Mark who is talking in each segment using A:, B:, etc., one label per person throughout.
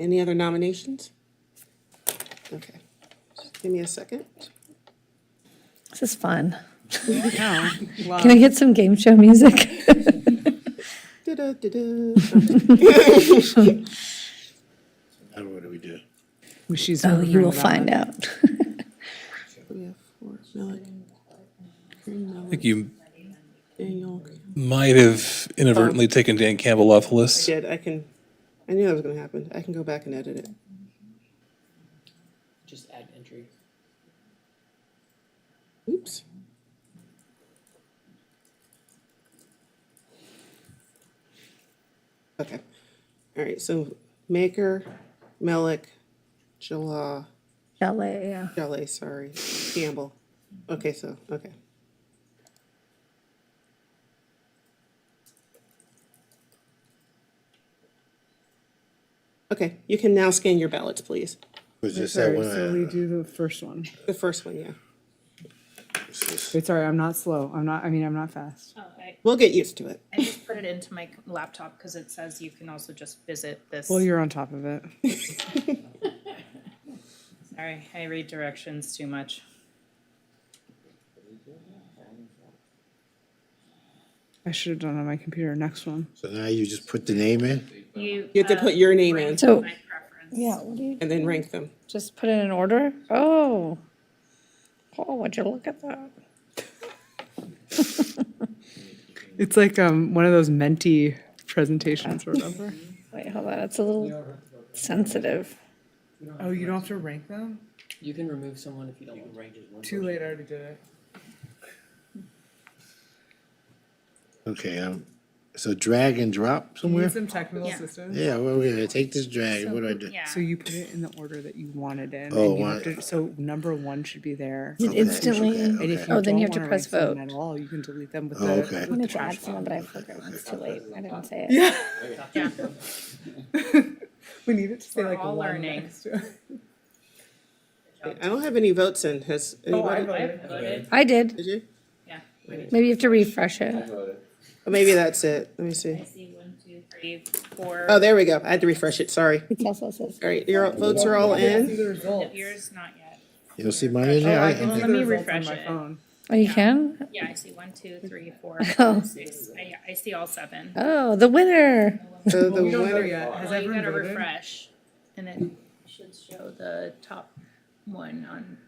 A: Any other nominations? Okay, Just give me a second.
B: This is fun.
C: No.
B: Can I get some game show music?
A: Da-da, da-da.
D: Now what do we do?
C: She's.
B: Oh, you will find out.
A: We have four, Millick, Green,
E: I
A: Millick,
E: think you
A: Daniel.
E: might have inadvertently taken Dan Campbell off the list.
A: Did, I can, I knew that was gonna happen. I can go back and edit it.
F: Just add entry.
A: Oops. Okay, all right, so Maker, Millick, Jala,
B: Chalet, yeah.
A: Jolly, sorry, Campbell. Okay, so, okay. Okay, you can now scan your ballots, please.
D: Was this that
C: Sorry,
D: one? uh,
C: so we
D: I-
C: do the first one.
A: The first one, yeah.
D: was this-
C: Wait, sorry, I'm not slow. I'm not, I mean, I'm not fast.
G: Oh, I,
A: We'll get used to it.
G: I just put it into my laptop because it says you can also just visit this.
C: Well, you're on top of it.
G: Sorry, I read directions too much.
C: I should have done it on my computer. Next one.
D: So now you just put the name in?
G: You.
A: You have to
G: uh,
A: put your name in
C: Oh.
B: So,
G: My preference.
B: yeah, what do you,
A: and then rank them.
B: just put it in order? Oh. Paul, would you look at that?
C: It's like um one of those mentee presentations, remember?
B: Wait, hold on, it's a little sensitive.
C: Oh, you don't have to rank them?
F: You can remove someone if you don't want. Rank is one.
C: Too late, I already did it.
D: Okay, um, so drag and drop somewhere?
C: some technical
G: Yeah.
C: assistance.
D: Yeah, well, we're gonna take this drag, what do I do?
G: Yeah.
C: So you put it in the order that you want it in.
D: Oh,
C: and you have
D: wow.
C: to- So number one should be there.
D: Okay,
B: instantly-
C: And
D: okay,
C: if
D: okay.
C: you
B: Oh, then you
C: don't
B: have to
C: wanna
B: press
C: rank them
B: vote.
C: At all, you can delete them with
D: Oh,
C: the.
D: okay.
B: I wanted to add someone, but I forgot, it's too late, I didn't say it. Yeah.
G: Yeah.
C: We need it to say
G: We're
C: like
G: all
C: one
G: learning.
C: next to it.
A: I don't have any votes in. Has
C: Oh,
A: anybody?
C: voted.
G: I voted,
B: I did,
A: Did you?
G: yeah.
B: maybe you have to refresh it.
A: Oh, maybe that's it. Let me see.
G: I see one, two, three, four.
A: Oh, there we go. I had to refresh it. Sorry.
B: It also says,
A: All right, your votes are all in.
G: Yours, not yet.
D: You don't see mine in
C: Oh,
D: there?
C: I
D: I-
C: can see
G: Let
C: the
G: me
C: results on
G: refresh
C: my
G: it.
C: phone.
B: oh, you can?
G: Yeah, I see one, two, three, four,
B: Oh.
G: five, six. I, I see all seven.
B: Oh, the winner.
A: So the
C: We don't know
A: winner,
C: yet. Has
G: Well, you
C: everyone
G: gotta
C: voted?
G: refresh and it should show the top one on.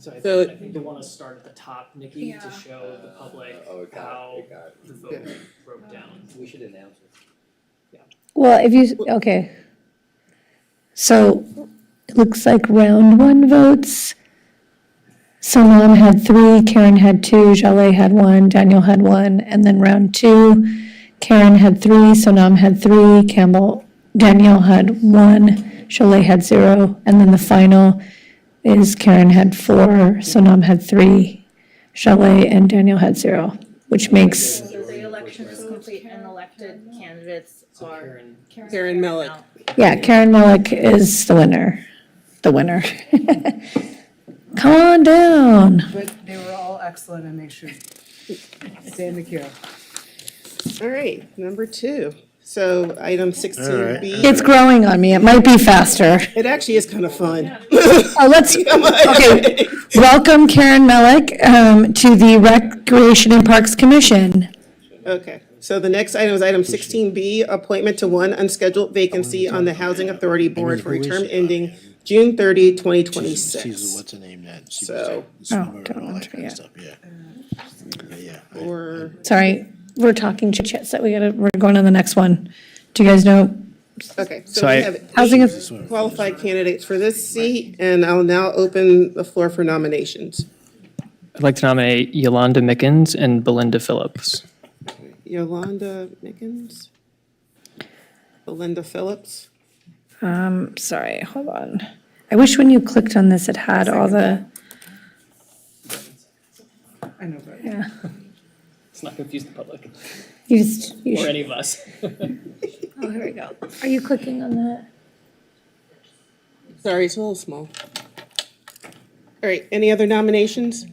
F: So I
A: So-
F: think, I think you wanna start at the top, Nikki,
G: Yeah.
F: to show the public
H: Oh, it got
F: how
H: it, it got it.
F: the vote broke down.
H: We should announce it.
B: Well, if you, okay. So it looks like round one votes. Salam had three, Karen had two, Jaleh had one, Daniel had one, and then round two, Karen had three, Sonam had three, Campbell, Daniel had one, Jaleh had zero, and then the final is Karen had four, Sonam had three, Jaleh and Daniel had zero, which makes,
G: So the election is complete and elected candidates are.
F: Karen,
A: Karen Millick.
B: yeah, Karen Malik is the winner, the winner. Come on down.
C: But they were all excellent and they should stay in the queue.
A: All right, number two. So item sixteen B.
B: It's growing on me. It might be faster.
A: It actually is kind of fun.
B: Oh, let's, okay. Welcome Karen Melick, um, to the Recreation and Parks Commission.
A: Okay, so the next item is item sixteen B, appointment to one unscheduled vacancy on the Housing Authority Board for a term ending June 30, 2026.
D: She's- She's, what's her name that? she was
A: So-
D: a swimmer
B: don't
D: and all that
B: want
D: kind of
B: to,
D: stuff, yeah. Yeah, Yeah, I-
A: Or,
B: Sorry, we're talking chit chat, so we gotta, we're going on the next one. Do you guys know
A: okay, so
I: So
A: we
I: I-
A: have
B: housing?
A: eight
B: is-
A: qualified candidates for this seat, and I'll now open the floor for nominations.
I: I'd like to nominate Yolanda Mickens and Belinda Phillips.
A: Yolanda Mickens, Belinda Phillips.
B: Um, sorry, hold on. I wish when you clicked on this, it had all the,
C: I know, but
B: yeah.
F: let's not confuse the public,
B: You just, you
F: or
B: should,
F: any of us.
B: oh, here we go. Are you clicking on that?
A: Sorry, it's a little small. All right, any other nominations?